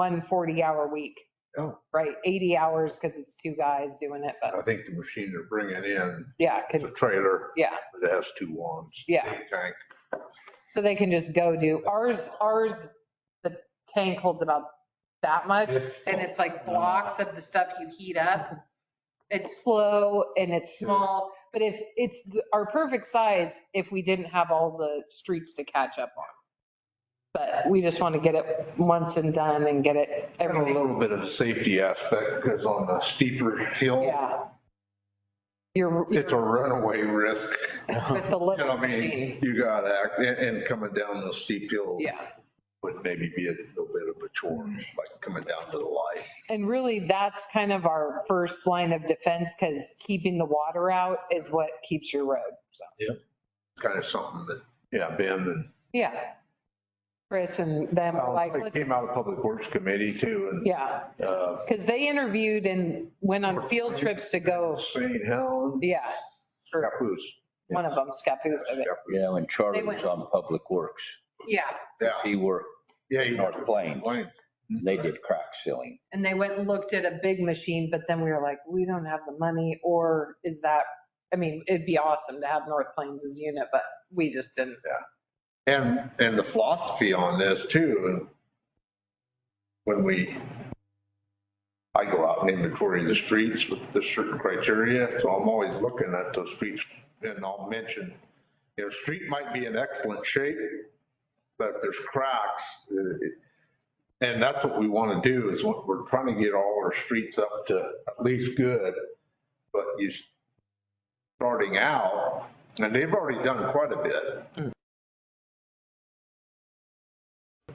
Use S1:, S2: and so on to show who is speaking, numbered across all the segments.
S1: one 40-hour week.
S2: Oh.
S1: Right, 80 hours because it's two guys doing it, but
S2: I think the machine they're bringing in,
S1: yeah,
S2: is
S1: 'cause-
S2: a trailer
S1: yeah.
S2: that has two wands.
S1: Yeah.
S2: Big Tank.
S1: So they can just go do, ours, ours, the tank holds about that much and it's like blocks of the stuff you heat up. It's slow and it's small, but if it's th- our perfect size, if we didn't have all the streets to catch up on. But we just want to get it once and done and get it
S2: And a
S1: everything.
S2: little bit of a safety aspect because on the steeper hill,
S1: Yeah. You're
S2: it's a runaway risk.
S1: with the
S2: You know,
S1: little
S2: I mean,
S1: machine.
S2: you gotta act, and, and coming down the steep hill
S1: Yeah.
S2: would maybe be a little bit of a chore, like coming down to the light.
S1: And really, that's kind of our first line of defense because keeping the water out is what keeps your road. So,
S2: Kind of something that, yeah, Ben and
S1: yeah. Chris and them were like,
S2: It
S1: let's-
S2: came out of Public Works Committee too,
S1: yeah,
S2: and uh,
S1: because they interviewed and went on field trips to go,
S2: St. Helens.
S1: yeah,
S2: Scappoose.
S1: one of them, Scappoose, I think.
S2: Scappoose.
S3: Yeah, when Charlie
S1: They went-
S3: was on Public Works,
S1: Yeah,
S2: Yeah,
S3: he worked,
S2: yeah. you-
S3: North Plains.
S2: Plains.
S3: they did crack sealing.
S1: and they went and looked at a big machine, but then we were like, we don't have the money, or is that, I mean, it'd be awesome to have North Plains as unit, but we just didn't.
S2: And, and the philosophy on this too, and when we, I go out and inventory the streets with the certain criteria, so I'm always looking at those streets and I'll mention, you know, street might be in excellent shape, but if there's cracks, uh, it- and that's what we want to do is what we're trying to get all our streets up to at least good, but you s- starting out, and they've already done quite a bit.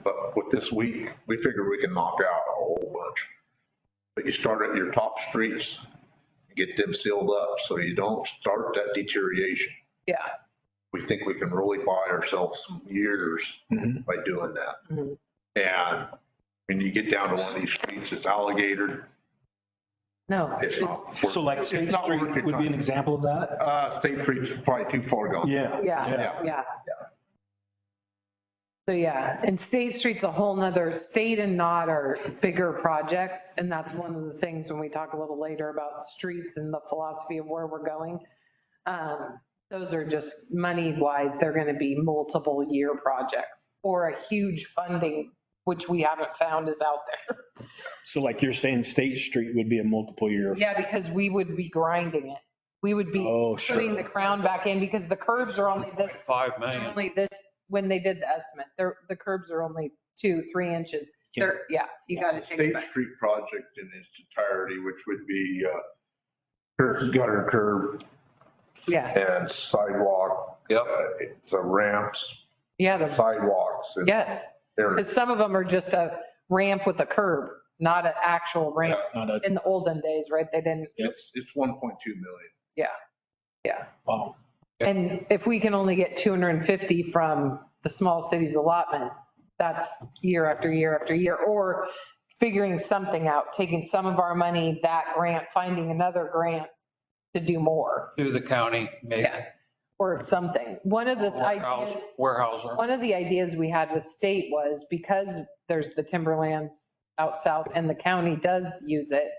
S2: But with this week, we figure we can knock out a whole bunch. But you start at your top streets, get them sealed up so you don't start that deterioration.
S1: Yeah.
S2: We think we can really buy ourselves some years
S4: Mm-hmm.
S3: Mhm.
S2: by doing that.
S1: Mhm.
S2: And when you get down to one of these streets, it's alligator.
S1: No,
S2: It's not.
S1: it's,
S2: worth-
S4: So like
S2: it's
S4: State
S2: not worth
S4: Street
S2: your
S4: would be an
S2: time.
S4: example of that?
S2: Uh, State Street's probably too far gone.
S4: Yeah.
S1: yeah, yeah. So yeah, and State Street's a whole nother, State and Not are bigger projects. And that's one of the things when we talk a little later about streets and the philosophy of where we're going. Um, Those are just money wise, they're going to be multiple year projects or a huge funding, which we haven't found is out there.
S4: So like you're saying State Street would be a multiple year.
S1: Yeah, because we would be grinding it. We would be
S4: Oh,
S1: putting
S4: sure.
S1: the crown back in because the curves are only this
S5: 5
S1: They're
S5: million.
S1: Only this, when they did the estimate, they're, the curbs are only two, three inches. They're, yeah, you gotta take it
S2: State
S1: back.
S2: Street project in its entirety, which would be uh, curb- gutter curb,
S1: Yeah,
S2: and sidewalk. Yep. The ramps,
S1: yeah, the-
S2: sidewalks. and
S1: yes,
S2: areas.
S1: because some of them are just a ramp with a curb, not an actual ramp.
S4: Not a-
S1: In the olden days, right, they didn't,
S2: It's, it's 1.2 million.
S4: wow.
S1: and if we can only get 250 from the small cities allotment, that's year after year after year, or figuring something out, taking some of our money, that grant, finding another grant to do more.
S5: Through the county, maybe.
S1: Yeah. or something. One of the
S5: Warehouse,
S1: ideas,
S5: warehouse.
S1: one of the ideas we had with state was because there's the timberlands out south and the county does use it,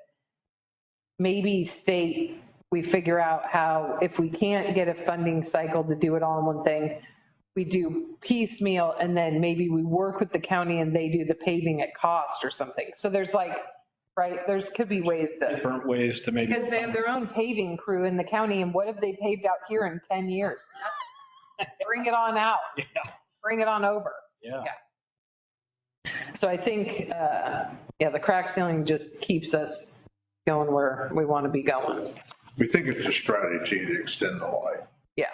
S1: maybe state, we figure out how, if we can't get a funding cycle to do it all in one thing, we do piecemeal and then maybe we work with the county and they do the paving at cost or something. So there's like, right, there's, could be ways to.
S4: Different ways to maybe.
S1: Because they have their own paving crew in the county, and what have they paved out here in 10 years? Bring it on out.
S4: Yeah.
S1: Bring it on over.
S4: Yeah.
S1: So I think, uh, yeah, the crack ceiling just keeps us going where we want to be going.
S2: We think it's a strategy to extend the life
S1: Yeah,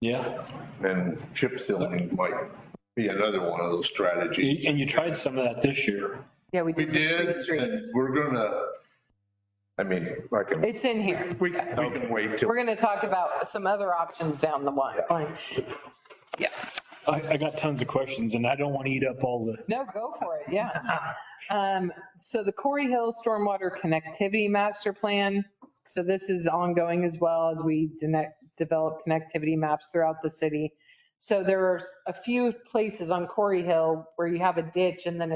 S4: Yeah.
S2: and chip sealing might be another one of those strategies.
S4: And you tried some of that this year.
S1: yeah, we
S2: We
S1: did.
S2: did,
S1: the
S2: and
S1: streets.
S2: we're gonna, I mean, I can,
S1: It's in here.
S2: we we can wait till,
S1: We're going to talk about some other options down the line. Yeah,
S4: I, I got tons of questions and I don't want to eat up all the.
S1: no, go for it, yeah. Um, So the Corey Hill Stormwater Connectivity Master Plan. So this is ongoing as well as we de- develop connectivity maps throughout the city. So there are a few places on Corey Hill where you have a ditch and then a